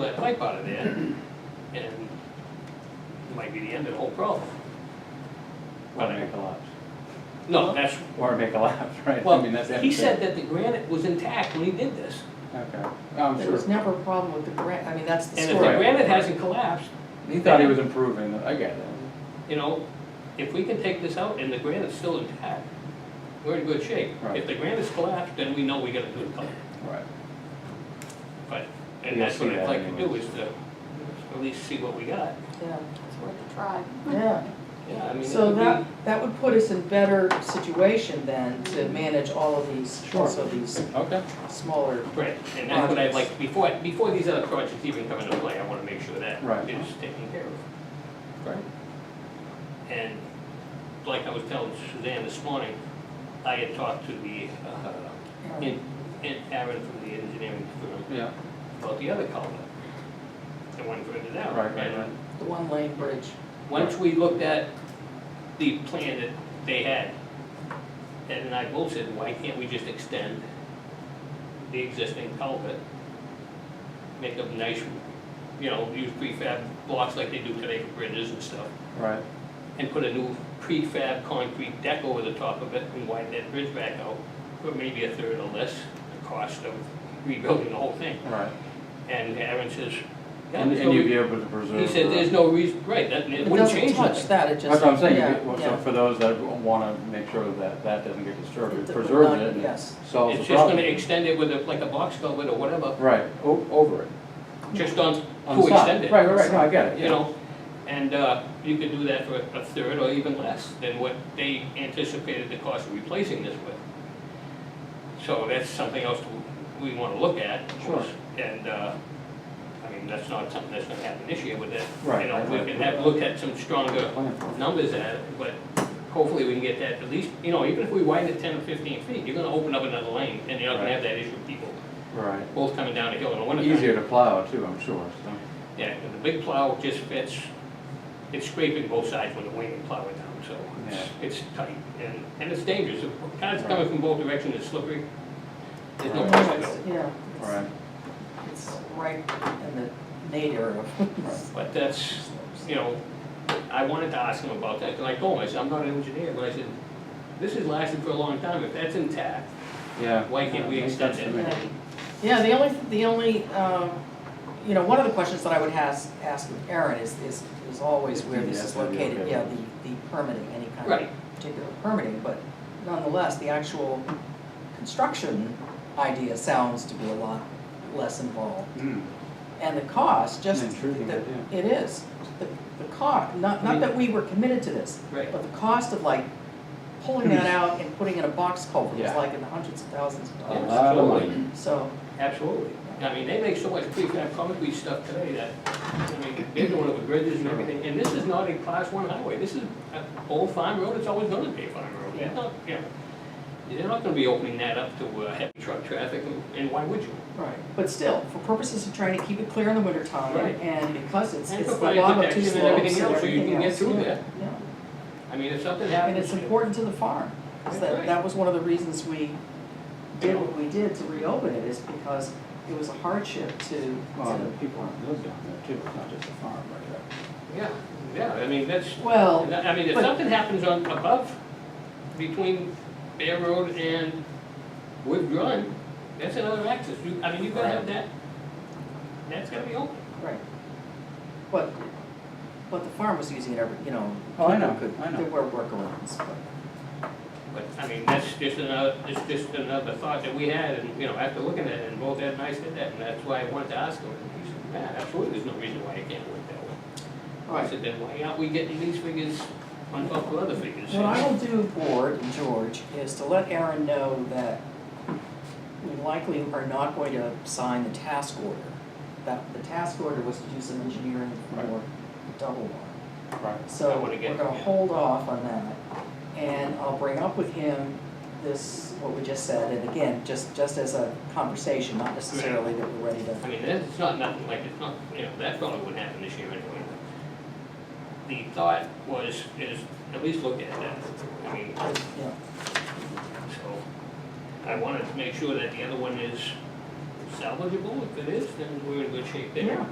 that pipe out of there, and it might be the end of the whole problem. Or it may collapse, No, that's, or it may collapse, right? I well, mean, that's he said that the granite was intact when he did this. Okay, Oh, I'm There sure. was never a problem with the grant, I mean, that's the And if the Right. story. granite hasn't collapsed, He thought he was improving, I get that, you know, if we can take this out and the granite's still intact, we're in good shape. Right. If the granite's collapsed, then we know we gotta do the culvert. right. But, and You'll that's see what I'd that like to do anyways. is to at least see what we got. Yeah. It's worth a try. Yeah. Yeah, I mean, it So would that, be, that would put us in better situation then to manage all of these, Sure. also these Okay, smaller. right, and that's what I'd like, before, before these other projects even come into play, I wanna make sure that Right. is taken care of. great. And like I was telling Suzanne this morning, I had talked to the, uh, uh, in, in Aaron from the engineering firm, Yeah, about the other culvert, the one further down. Right, right, And right. The one lane bridge. Once we looked at the plan that they had, and I both said, why can't we just extend the existing culvert? Make a nice, you know, use prefab blocks like they do today for bridges and stuff, right, and put a new prefab concrete deck over the top of it and widen that bridge back out for maybe a third or less the cost of rebuilding the whole thing. right. And Aaron says, yeah, And there's and you'd be no, able to preserve. he said, the- there's no reason, right, that, it wouldn't change It nothing. doesn't touch that, it just. That's what I'm saying, yeah, you get- well, so yeah. for those that wanna make sure that that doesn't get disturbed, It- it it preserves would not- it and yes. solves the It's just gonna problem. extend it with a, like a box culvert or whatever, Right, o- over it, just on, on the to side. extend it. Right, right, right, no, I get it, You yeah. know, and, uh, you could do that for a third or even less than what they anticipated the cost of replacing this with. So that's something else to- we wanna look at. of Sure. course. And, uh, I mean, that's not something that's gonna happen this year with that. Right, You know, right, we right. can have, look at some stronger Plan for it. numbers at it, but hopefully we can get that, at least, you know, even if we widen it ten or fifteen feet, you're gonna open up another lane, and you're not gonna have that issue of people Right. both coming down the hill in the wintertime. Easier to plow too, I'm sure, so, Yeah, and the big plow just fits, it's scraping both sides when the wind and plow it down, so it's, it's tight, and, and it's dangerous. If Cars coming from both directions, it's slippery, there's no Right. place to It's- go. Yeah. all right. It's it's right in the nadir of. But that's, you know, I wanted to ask him about that, and I told him, I said, I'm not an engineer, but I said, this has lasted for a long time, if that's intact, Yeah. Why can't we Yeah, makes extend sense it? to me. Yeah. Yeah, the only, the only, um, you know, one of the questions that I would ask, ask with Aaron is, is, is always where this is Yeah, that'd be located, okay. yeah, the, the permitting, any kind Right. of particular permitting, but nonetheless, the actual construction idea sounds to be a lot less involved. Mm. And the cost, just, Intriguing, the- yeah. it is, the, the cost, not, not that we were committed to this, right? but the cost of like pulling that out and putting in a box culvert was Yeah. like in the hundreds of thousands of A lot dollars. of Absolutely. money. So, Absolutely. I mean, they make so much prefab concrete stuff today that, I mean, they're doing it with bridges and everything. And this is not a class one highway. This is an old farm road. It's always gonna be a farm road. They're not, you know, they're not gonna be opening that up to uh, heavy truck traffic, and- and why would you? right, but still, for purposes of trying to keep it clear in the wintertime, Right. and because it's, And it's the provide lava two protection and slopes and everything everything else. else, so you can get through yeah, there. Yeah, I mean, if something and happens. it's important to the farm, 'cause That's right. that, that was one of the reasons we Yeah. did what we did to reopen it, is because it was a hardship to, Well, the to, people live down there too, it's not just the farm right there. Yeah, yeah, I mean, that's, well, I mean, if but- something happens on, above, between Bear Road and Wood Run, that's another access. You, I mean, you gotta have that, that's gotta be open. right. But, but the farm was using it every, you know, Oh, I know, people could- I know. there were workarounds, but. But, I mean, that's just another, it's just another thought that we had, and, you know, after looking at it, and both Ed and I said that, and that's why I wanted to ask him, and he said, yeah, absolutely, there's no reason why it can't work that way. All right. I said, then why aren't we getting these figures on top of other figures? What I will do, board and George, is to let Aaron know that we likely are not going to sign the task order. That, the task order was to do some engineering for Right. the double one. Right. I So wanna we're get- gonna yeah. hold off on that. And I'll bring up with him this, what we just said, and again, just, just as a conversation, not necessarily that we're ready to. I mean, that's, it's not nothing, like, it's not, you know, that probably wouldn't happen this year anyway. The thought was, is, at least look at that, I mean, Yeah. so, I wanted to make sure that the other one is salvageable, if it is, then we're in good shape there. Yeah.